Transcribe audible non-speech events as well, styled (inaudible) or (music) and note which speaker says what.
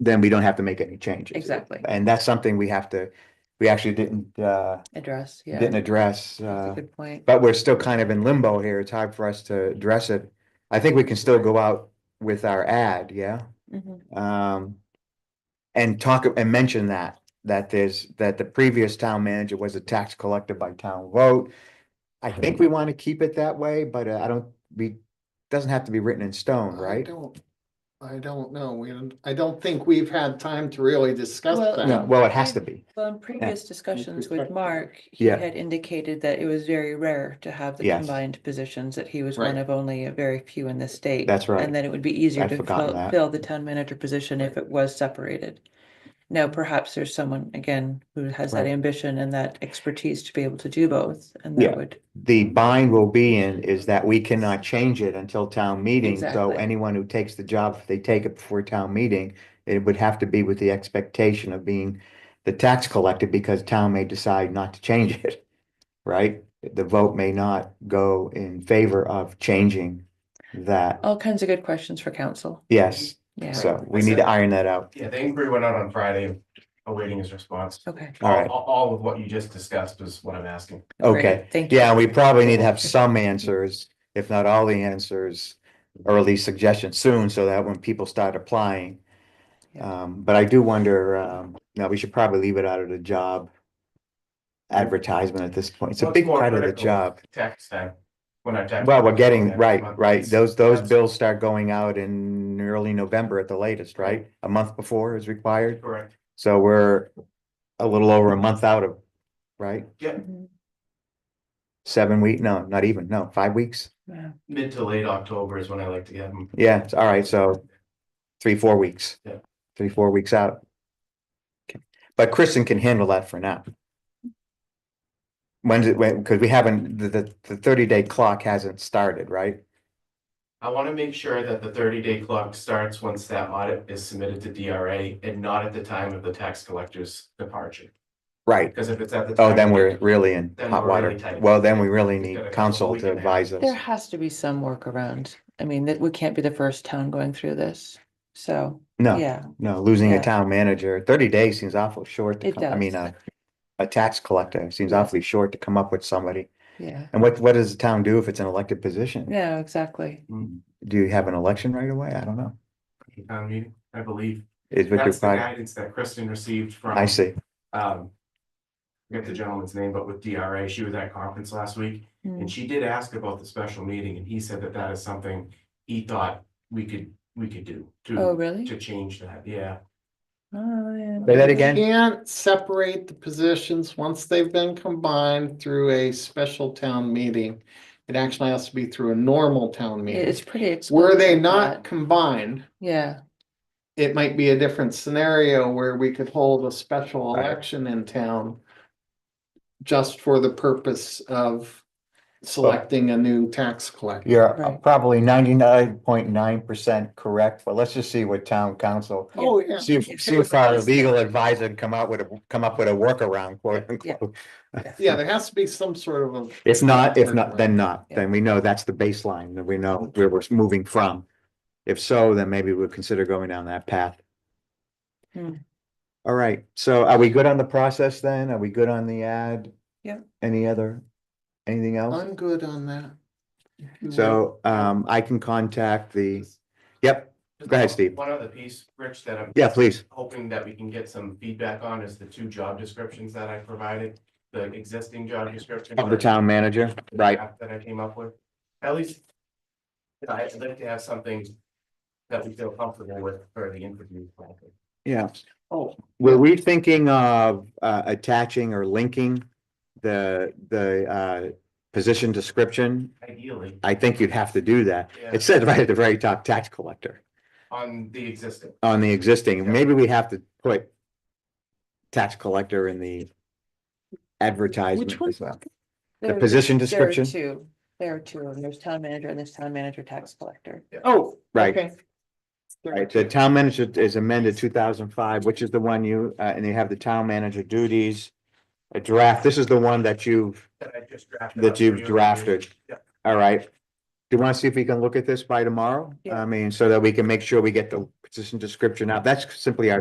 Speaker 1: then we don't have to make any changes.
Speaker 2: Exactly.
Speaker 1: And that's something we have to, we actually didn't, uh,
Speaker 2: address, yeah.
Speaker 1: didn't address,
Speaker 2: That's a
Speaker 1: uh,
Speaker 2: good point.
Speaker 1: but we're still kind of in limbo here. It's hard for us to address it. I think we can still go out with our ad, yeah?
Speaker 2: Mhm.
Speaker 1: um, and talk and mention that, that there's, that the previous town manager was a tax collector by town vote. I think we want to keep it that way, but uh, I don't, we, doesn't have to be written in stone,
Speaker 3: I
Speaker 1: right?
Speaker 3: don't- I don't know. We, don't- I don't think we've had time to really discuss
Speaker 2: Well-
Speaker 1: No,
Speaker 3: that.
Speaker 1: well, it has to be.
Speaker 2: Well, in previous discussions with
Speaker 3: perspective.
Speaker 2: Mark, he
Speaker 1: Yeah.
Speaker 2: had indicated that it was very rare to have the
Speaker 1: Yes.
Speaker 2: combined positions, that he was one
Speaker 3: Right.
Speaker 2: of only a very few in the state.
Speaker 1: That's right.
Speaker 2: And that it would be easier
Speaker 1: I'd
Speaker 2: to
Speaker 1: forgotten
Speaker 2: fill,
Speaker 1: that.
Speaker 2: fill the town manager position if it was separated. Now, perhaps there's someone, again, who has that
Speaker 1: Right.
Speaker 2: ambition and that expertise to be able to do both, and
Speaker 1: Yeah.
Speaker 2: that would,
Speaker 1: The bind will be in is that we cannot change it until town meeting. So
Speaker 2: Exactly.
Speaker 1: anyone who takes the job, if they take it before town meeting, it would have to be with the expectation of being the tax collector because town may decide not to change it, (laughs) right? The vote may not go in favor of changing that.
Speaker 2: all kinds of good questions for council,
Speaker 1: Yes,
Speaker 2: yeah,
Speaker 1: so we need to iron that out.
Speaker 4: Yeah, the inquiry went out on Friday, awaiting his response.
Speaker 2: okay.
Speaker 1: All right.
Speaker 4: All, all of what you just discussed is what I'm asking.
Speaker 2: great,
Speaker 1: Okay,
Speaker 2: Thank you.
Speaker 1: Yeah, we probably need to have some answers, if not all the answers, or at least suggestions soon, so that when people start applying.
Speaker 2: Yeah.
Speaker 1: Um, but I do wonder, um, now we should probably leave it out of the job advertisement at this point. It's a
Speaker 4: What's
Speaker 1: big
Speaker 4: more
Speaker 1: part of the
Speaker 4: critical?
Speaker 1: job.
Speaker 4: Tax time, when our tax.
Speaker 1: Well, we're getting,
Speaker 4: next
Speaker 1: right,
Speaker 4: month.
Speaker 1: right. Those, those
Speaker 4: That's
Speaker 1: bills start going out in early November at the latest, right? A month before is required.
Speaker 4: Correct.
Speaker 1: So we're a little over a month out of, right?
Speaker 2: Mhm.
Speaker 1: Seven week, no, not even, no, five weeks?
Speaker 2: Yeah.
Speaker 4: Mid to late October is when I like to get them.
Speaker 1: Yeah, it's all right, so three, four weeks.
Speaker 4: Yeah.
Speaker 1: Three, four weeks out. Okay, But Kristen can handle that for now. When's it, when, because we haven't, the, the, the thirty day clock hasn't started, right?
Speaker 4: I want to make sure that the thirty day clock starts once that audit is submitted to DRA and not at the time of the tax collector's departure.
Speaker 1: Right.
Speaker 4: Because if it's at the.
Speaker 1: Oh,
Speaker 4: time
Speaker 1: then
Speaker 4: of-
Speaker 1: we're really in
Speaker 4: Then
Speaker 1: hot
Speaker 4: we're really
Speaker 1: water.
Speaker 4: tight.
Speaker 1: Well, then we really
Speaker 4: We've got a
Speaker 1: need
Speaker 4: couple
Speaker 1: council
Speaker 4: week
Speaker 1: to
Speaker 4: and a half.
Speaker 1: advise us.
Speaker 2: There has to be some workaround. I mean, that we can't be the first town going through this. So,
Speaker 1: No,
Speaker 2: yeah,
Speaker 1: no, losing a
Speaker 2: Yeah.
Speaker 1: town manager, thirty days seems awful short. to
Speaker 2: It
Speaker 1: come- I mean,
Speaker 2: does.
Speaker 1: a, a tax collector seems awfully short to come up with somebody.
Speaker 2: yeah.
Speaker 1: And what, what does the town do if it's an elected position?
Speaker 2: No, exactly.
Speaker 4: Mm-hmm.
Speaker 1: Do you have an election right away? I don't know.
Speaker 4: Town meeting, I believe.
Speaker 1: Is Victor
Speaker 4: That's the
Speaker 1: Pride?
Speaker 4: guidance that Kristen received from.
Speaker 1: I see.
Speaker 4: um, forget the gentleman's name, but with DRA, she was at conference last week, and
Speaker 2: Mm.
Speaker 4: she did ask about the special meeting, and he said that that is something he thought we could, we could do
Speaker 2: Oh,
Speaker 4: to,
Speaker 2: really?
Speaker 4: to change that, yeah.
Speaker 2: Oh, yeah.
Speaker 1: Say that
Speaker 3: You
Speaker 1: again.
Speaker 3: Can't separate the positions once they've been combined through a special town meeting. It actually has to be through a normal town
Speaker 2: It-
Speaker 3: meeting.
Speaker 2: It's pretty.
Speaker 3: Were they
Speaker 2: explicit,
Speaker 3: not
Speaker 2: but-
Speaker 3: combined,
Speaker 2: Yeah,
Speaker 3: it might be a different scenario where we could hold a special
Speaker 1: Right.
Speaker 3: election in town just for the purpose of selecting a new tax collector.
Speaker 1: You're uh,
Speaker 2: Right.
Speaker 1: probably ninety-nine point nine percent correct, but let's just see what town council,
Speaker 2: Yeah.
Speaker 3: Oh, yeah.
Speaker 1: see if,
Speaker 2: If
Speaker 1: see
Speaker 2: it
Speaker 1: if
Speaker 2: was
Speaker 1: our
Speaker 2: us.
Speaker 1: legal advisor can come out with a, come up with a workaround, quote unquote. (laughs)
Speaker 3: Yeah, there has to be some sort of a.
Speaker 1: If not, if not, then not,
Speaker 2: Yeah.
Speaker 1: then we know that's the baseline, that we know where we're moving from. If so, then maybe we'll consider going down that path.
Speaker 2: Hmm.
Speaker 1: All right, so are we good on the process then? Are we good on the ad?
Speaker 2: Yep.
Speaker 1: Any other, anything else?
Speaker 3: I'm good on that.
Speaker 1: So um, I can contact the, yep, Go ahead, Steve.
Speaker 4: One other piece, Rich, that I'm.
Speaker 1: yeah, please.
Speaker 4: Hoping that we can get some feedback on is the two job descriptions that I provided, the existing job description.
Speaker 1: Of the town manager, right?
Speaker 4: draft That I came up with, at least. I'd like to have something that we feel comfortable with for the interview. process.
Speaker 1: Yeah.
Speaker 3: Oh.
Speaker 1: Were we thinking of uh, attaching or linking the, the uh, position description?
Speaker 4: Ideally,
Speaker 1: I think you'd have to do that.
Speaker 4: yeah,
Speaker 1: It said right at the very top, tax collector
Speaker 4: on the existing,
Speaker 1: on the existing. Maybe we have to put tax collector in the advertisement
Speaker 2: one?
Speaker 1: as well. The
Speaker 2: There-
Speaker 1: position
Speaker 2: there are
Speaker 1: description,
Speaker 2: two. There are two. of them. There's town manager and there's town manager tax collector.
Speaker 3: Oh.
Speaker 1: Right.
Speaker 3: okay.
Speaker 1: right? The town manager is amended two thousand five, which is the one you, uh, and you have the town manager duties. A draft, this is the one that you've
Speaker 4: that I just drafted. up
Speaker 1: that
Speaker 4: for
Speaker 1: you've
Speaker 4: you.
Speaker 1: drafted.
Speaker 4: Yeah.
Speaker 1: All right. Do you want to see if we can look at this by tomorrow?
Speaker 2: Yeah.
Speaker 1: I mean, so that we can make sure we get the position description out. That's simply our